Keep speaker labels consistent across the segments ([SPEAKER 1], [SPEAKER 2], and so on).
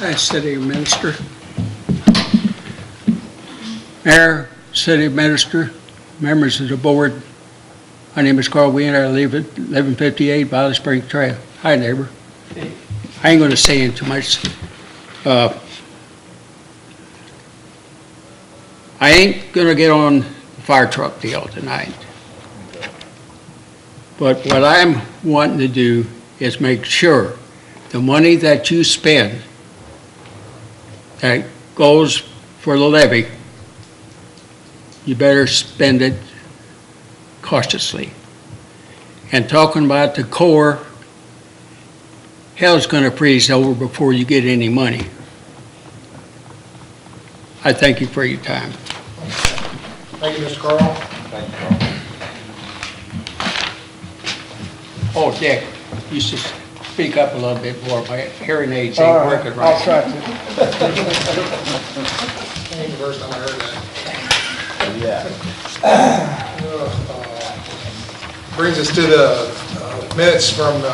[SPEAKER 1] as city minister. Mayor, city minister, members of the board, my name is Carl Wien, I live at 1158 Valley Spring Trail. Hi, neighbor. I ain't gonna say it too much. Uh, I ain't gonna get on the fire truck deal tonight. But what I'm wanting to do is make sure the money that you spend that goes for the levy, you better spend it cautiously. And talking about the core, hell's gonna freeze over before you get any money. I thank you for your time.
[SPEAKER 2] Thank you, Mr. Carl.
[SPEAKER 1] Oh, Dick, you should speak up a little bit more, my hearing aids
[SPEAKER 3] All
[SPEAKER 1] ain't
[SPEAKER 3] right,
[SPEAKER 1] working right.
[SPEAKER 3] I'll try to.
[SPEAKER 2] I think the first time I heard that. Yeah. Brings us to the uh, minutes from uh,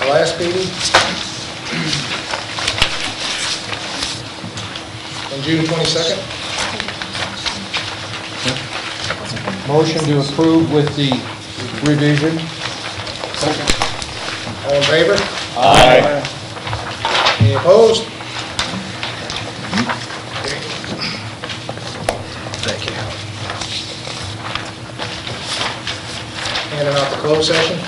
[SPEAKER 2] our last meeting. On June 22nd.
[SPEAKER 3] Motion to approve with the revision.
[SPEAKER 2] All in favor? Aye. Any opposed? Thank you. Handing out the closed session.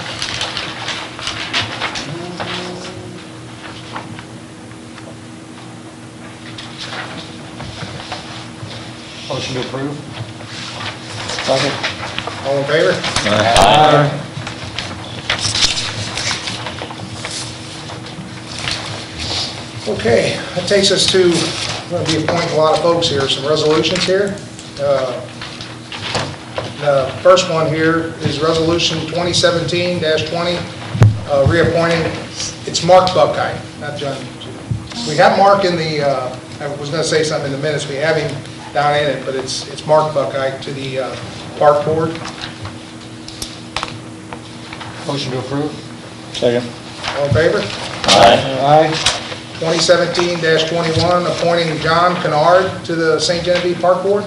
[SPEAKER 3] Motion to approve.
[SPEAKER 2] All in favor? Okay, that takes us to, we're going to be appointing a lot of folks here, some resolutions here. Uh, The first one here is Resolution 2017-20, uh, reappointing, it's Mark Buckeye, not John. We have Mark in the, uh, I was going to say something in the minutes, we have him down in it, but it's, it's Mark Buckeye to the uh, Park Board.
[SPEAKER 3] Motion to approve.
[SPEAKER 4] Second.
[SPEAKER 2] All in favor?
[SPEAKER 3] Aye.
[SPEAKER 2] 2017-21, appointing John Kennard to the St. Genevieve Park Board.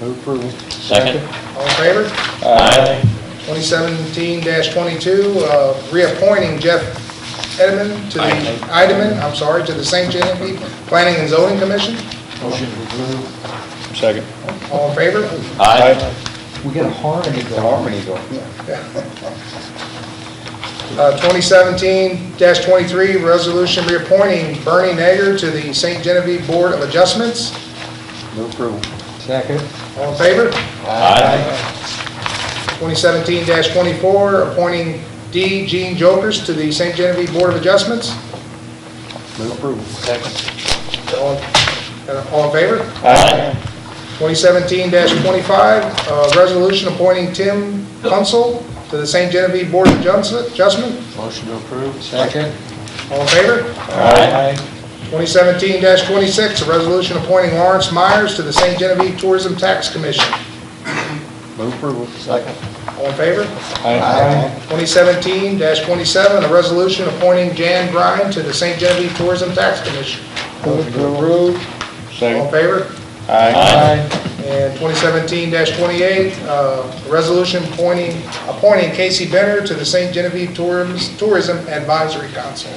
[SPEAKER 3] Move approval.
[SPEAKER 4] Second.
[SPEAKER 2] All in favor?
[SPEAKER 4] Aye.
[SPEAKER 2] 2017-22, uh, reappointing Jeff Edelman to the, Ideman, I'm sorry, to the St. Genevieve Planning and Zoning Commission.
[SPEAKER 3] Motion to approve.
[SPEAKER 4] Second.
[SPEAKER 2] All in favor?
[SPEAKER 4] Aye.
[SPEAKER 3] We got a harmony going. Harmony going.
[SPEAKER 2] Uh, 2017-23, resolution reappointing Bernie Nager to the St. Genevieve Board of Adjustments.
[SPEAKER 3] Move approval. Second.
[SPEAKER 2] All in favor?
[SPEAKER 4] Aye.
[SPEAKER 2] 2017-24, appointing D. Gene Jokers to the St. Genevieve Board of Adjustments.
[SPEAKER 3] Move approval. Second.
[SPEAKER 2] All uh, all in favor?
[SPEAKER 4] Aye.
[SPEAKER 2] 2017-25, uh, resolution appointing Tim Kunsel to the St. Genevieve Board of Adjust- Adjustment.
[SPEAKER 3] Motion to approve. Second.
[SPEAKER 2] All in favor?
[SPEAKER 4] Aye.
[SPEAKER 2] 2017-26, a resolution appointing Lawrence Myers to the St. Genevieve Tourism Tax Commission.
[SPEAKER 3] Move approval. Second.
[SPEAKER 2] All in favor?
[SPEAKER 3] Aye.
[SPEAKER 2] 2017-27, a resolution appointing Jan Grine to the St. Genevieve Tourism Tax Commission.
[SPEAKER 3] Move approve.
[SPEAKER 2] All in
[SPEAKER 4] Second.
[SPEAKER 2] favor?
[SPEAKER 4] Aye.
[SPEAKER 2] And 2017-28, uh, resolution appointing, appointing Casey Benner to the St. Genevieve Tourism Tourism Advisory Council.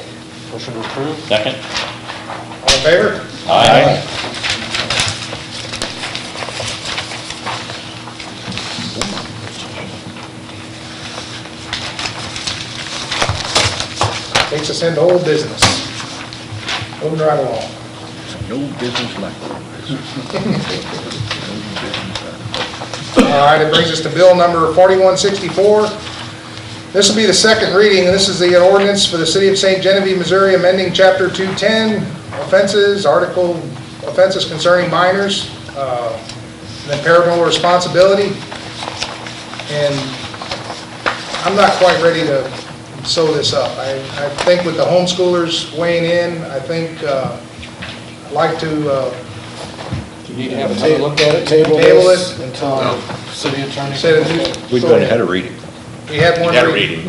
[SPEAKER 3] Motion to approve.
[SPEAKER 4] Second.
[SPEAKER 2] All in favor?
[SPEAKER 4] Aye.
[SPEAKER 2] Takes us into old business. Moving right along.
[SPEAKER 5] No business like
[SPEAKER 2] All right, it brings us to bill number 4164. This will be the second reading, and this is the ordinance for the City of St. Genevieve, Missouri, amending Chapter 210, offenses, article, offenses concerning minors, uh, and then parental responsibility. And I'm not quite ready to sew this up. I I think with the homeschoolers weighing in, I think, uh, I'd like to uh,
[SPEAKER 3] Do you need to have another look at it? Table
[SPEAKER 2] Table
[SPEAKER 3] this
[SPEAKER 2] it.
[SPEAKER 3] until city attorney.
[SPEAKER 2] say that...
[SPEAKER 5] We've gone ahead of reading.
[SPEAKER 2] We had one reading.